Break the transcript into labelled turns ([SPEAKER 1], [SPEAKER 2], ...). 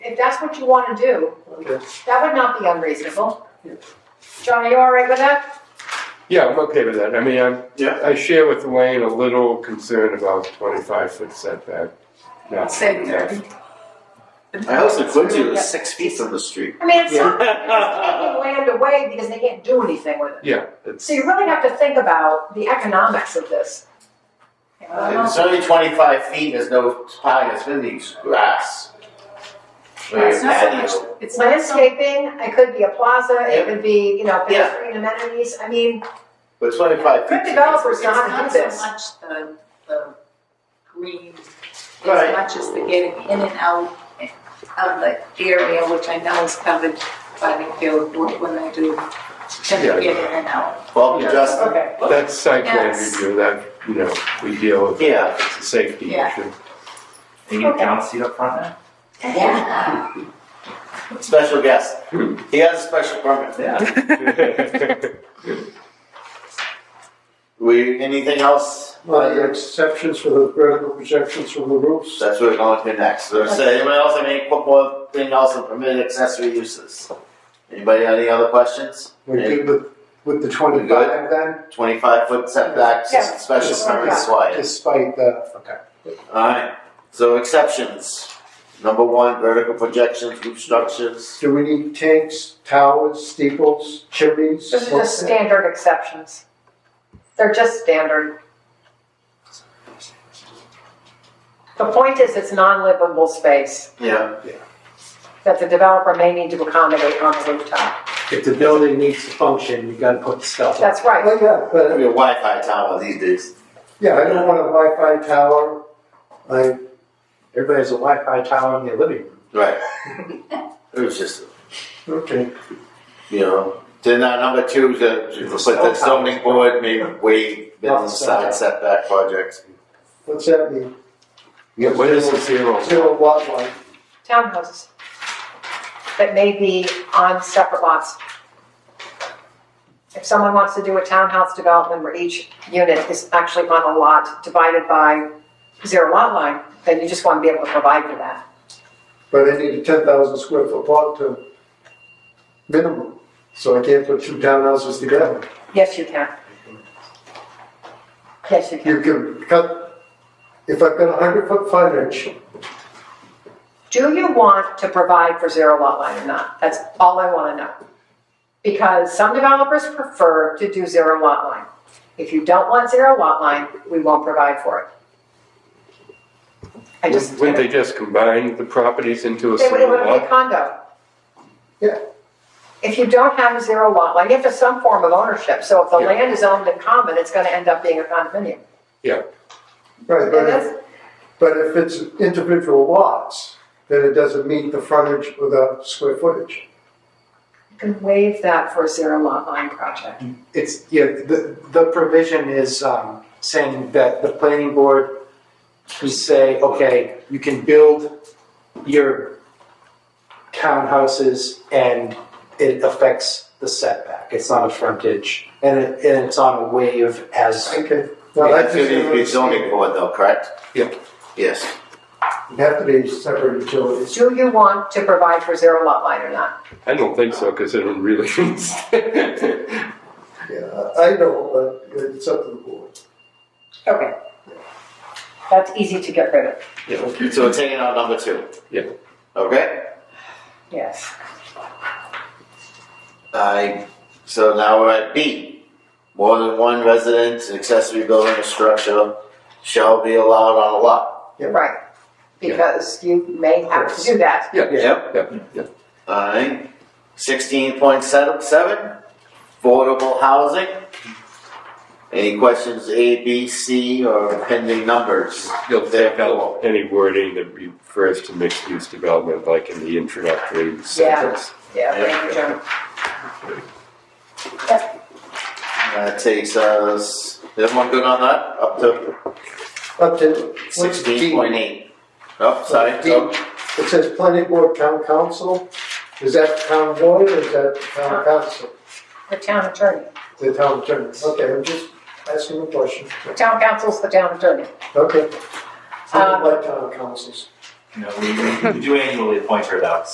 [SPEAKER 1] that's what you want to do,
[SPEAKER 2] Okay.
[SPEAKER 1] that would not be unreasonable. John, are you all right with that?
[SPEAKER 3] Yeah, I'm okay with that. I mean, I'm,
[SPEAKER 2] Yeah.
[SPEAKER 3] I share with Elaine a little concern about twenty-five foot setback. Not
[SPEAKER 1] Same
[SPEAKER 3] enough.
[SPEAKER 2] My house in Quincy was six feet from the street.
[SPEAKER 1] I mean, it's not, it's taking land away because they can't do anything with it.
[SPEAKER 3] Yeah, it's,
[SPEAKER 1] So you really have to think about the economics of this. You know, I
[SPEAKER 4] If
[SPEAKER 1] don't
[SPEAKER 4] It's only twenty-five feet, there's no pine, it's really grass. Or
[SPEAKER 5] It's not so
[SPEAKER 4] patio.
[SPEAKER 5] much, it's not so
[SPEAKER 1] Landscaping, it could be a plaza, it
[SPEAKER 4] Yep.
[SPEAKER 1] could be, you know,
[SPEAKER 4] Yeah.
[SPEAKER 1] pedestrian amenities, I mean,
[SPEAKER 4] But twenty-five feet.
[SPEAKER 1] good developers
[SPEAKER 5] It's
[SPEAKER 1] know how to
[SPEAKER 5] not
[SPEAKER 1] do
[SPEAKER 5] so
[SPEAKER 1] this.
[SPEAKER 5] much the, the green, as
[SPEAKER 4] Right.
[SPEAKER 5] much as the getting in and out of the area, which I know is covered by the field when they do tend
[SPEAKER 3] Yeah.
[SPEAKER 5] to get in and out.
[SPEAKER 4] Well, just,
[SPEAKER 1] Okay,
[SPEAKER 3] that's site plan
[SPEAKER 5] Yes.
[SPEAKER 3] review, that, you know, we deal with,
[SPEAKER 4] yeah,
[SPEAKER 3] it's a safety
[SPEAKER 5] Yeah.
[SPEAKER 3] issue.
[SPEAKER 6] They need a down seat up front now?
[SPEAKER 5] Yeah.
[SPEAKER 4] special guest. He has a special permit.
[SPEAKER 6] Yeah.
[SPEAKER 4] We, anything else?
[SPEAKER 7] Well, the exceptions for the vertical projections from the roofs.
[SPEAKER 4] That's what we're going to next. So, so anyone else have any more thing else on permitted accessory uses? Anybody have any other questions?
[SPEAKER 7] We did with, with the twenty-five then,
[SPEAKER 4] Twenty-five foot setbacks,
[SPEAKER 1] Yeah.
[SPEAKER 4] special permit is why.
[SPEAKER 7] despite the, okay.
[SPEAKER 4] Alright, so exceptions. Number one, vertical projections, roof structures.
[SPEAKER 7] Do we need tanks, towers, steeples, chimneys?
[SPEAKER 1] this is just standard exceptions. They're just standard. The point is, it's non-livable space
[SPEAKER 4] Yeah.
[SPEAKER 1] that the developer may need to accommodate on the rooftop.
[SPEAKER 8] If the building needs to function, you gotta put stuff up.
[SPEAKER 1] That's right,
[SPEAKER 7] Well, yeah,
[SPEAKER 4] Gonna
[SPEAKER 7] but,
[SPEAKER 4] be a Wi-Fi tower these days.
[SPEAKER 7] yeah, I don't want a Wi-Fi tower. I,
[SPEAKER 8] Everybody has a Wi-Fi tower in their living room.
[SPEAKER 4] Right. It was just,
[SPEAKER 7] okay,
[SPEAKER 4] you know, then uh, number two, the, the put the zoning board may waive minimum side setback projects.
[SPEAKER 7] what's that mean?
[SPEAKER 3] Yeah, what is the zero?
[SPEAKER 7] Zero lot line,
[SPEAKER 1] townhouses that may be on separate lots. If someone wants to do a townhouse development where each unit is actually on a lot divided by zero lot line, then you just want to be able to provide for that.
[SPEAKER 7] but I need a ten thousand square foot lot to minimum, so I can't put two townhouses together.
[SPEAKER 1] Yes, you can. Yes, you can.
[SPEAKER 7] You can cut, if I've got a hundred foot frontage,
[SPEAKER 1] Do you want to provide for zero lot line or not? That's all I want to know. Because some developers prefer to do zero lot line. If you don't want zero lot line, we won't provide for it. I just,
[SPEAKER 3] Wouldn't they just combine the properties into a
[SPEAKER 1] They would, it
[SPEAKER 3] single
[SPEAKER 1] would be a
[SPEAKER 3] lot?
[SPEAKER 1] condo.
[SPEAKER 7] Yeah.
[SPEAKER 1] If you don't have a zero lot line, you have to have some form of ownership. So if the
[SPEAKER 3] Yeah.
[SPEAKER 1] land is owned in common, it's going to end up being a condominium.
[SPEAKER 7] Right,
[SPEAKER 1] And
[SPEAKER 7] but
[SPEAKER 1] that's-
[SPEAKER 7] if, but if it's individual lots, then it doesn't meet the frontage or the square footage.
[SPEAKER 1] You can waive that for a zero lot line project.
[SPEAKER 8] It's, yeah, the, the provision is, um, saying that the planning board can say, okay, you can build your townhouses and it affects the setback. It's not a frontage and it, and it's on a wave as.
[SPEAKER 7] Okay. Now
[SPEAKER 4] Well,
[SPEAKER 7] that
[SPEAKER 4] that's
[SPEAKER 7] just.
[SPEAKER 4] gonna be zoning board though, correct?
[SPEAKER 3] Yeah.
[SPEAKER 4] Yes.
[SPEAKER 7] It'd have to be separate utilities.
[SPEAKER 1] Do you want to provide for zero lot line or not?
[SPEAKER 3] I don't think so, because it would really.
[SPEAKER 7] Yeah, I I know, but it's up to the board.
[SPEAKER 1] Okay. That's easy to get rid of,
[SPEAKER 4] So we're taking out number two.
[SPEAKER 3] Yeah.
[SPEAKER 4] Okay,
[SPEAKER 1] yes.
[SPEAKER 4] I, so now we're at B. More than one resident, accessory building or structure shall be allowed on a lot.
[SPEAKER 1] Right, because you may have to do that.
[SPEAKER 4] Yep.
[SPEAKER 3] Yep, yep.
[SPEAKER 4] Alright, sixteen point seven, seven, affordable housing. Any questions, A, B, C, or pending numbers?
[SPEAKER 3] You'll take out any wording that refers to mixed-use development, like in the introductory sentence.
[SPEAKER 1] Yeah, thank you, John.
[SPEAKER 4] That takes us, everyone good on that? Up to
[SPEAKER 7] Up to.
[SPEAKER 4] sixteen point eight. Oh, sorry,
[SPEAKER 7] D.
[SPEAKER 4] oh,
[SPEAKER 7] It says planning board, town council. Is that town board or is that town council?
[SPEAKER 1] The town attorney,
[SPEAKER 7] The town attorney. Okay, I'm just asking a question.
[SPEAKER 1] the town council's the town attorney.
[SPEAKER 7] Okay. I
[SPEAKER 1] Um,
[SPEAKER 7] don't like town councils.
[SPEAKER 6] No, we, we do annually appoint her though,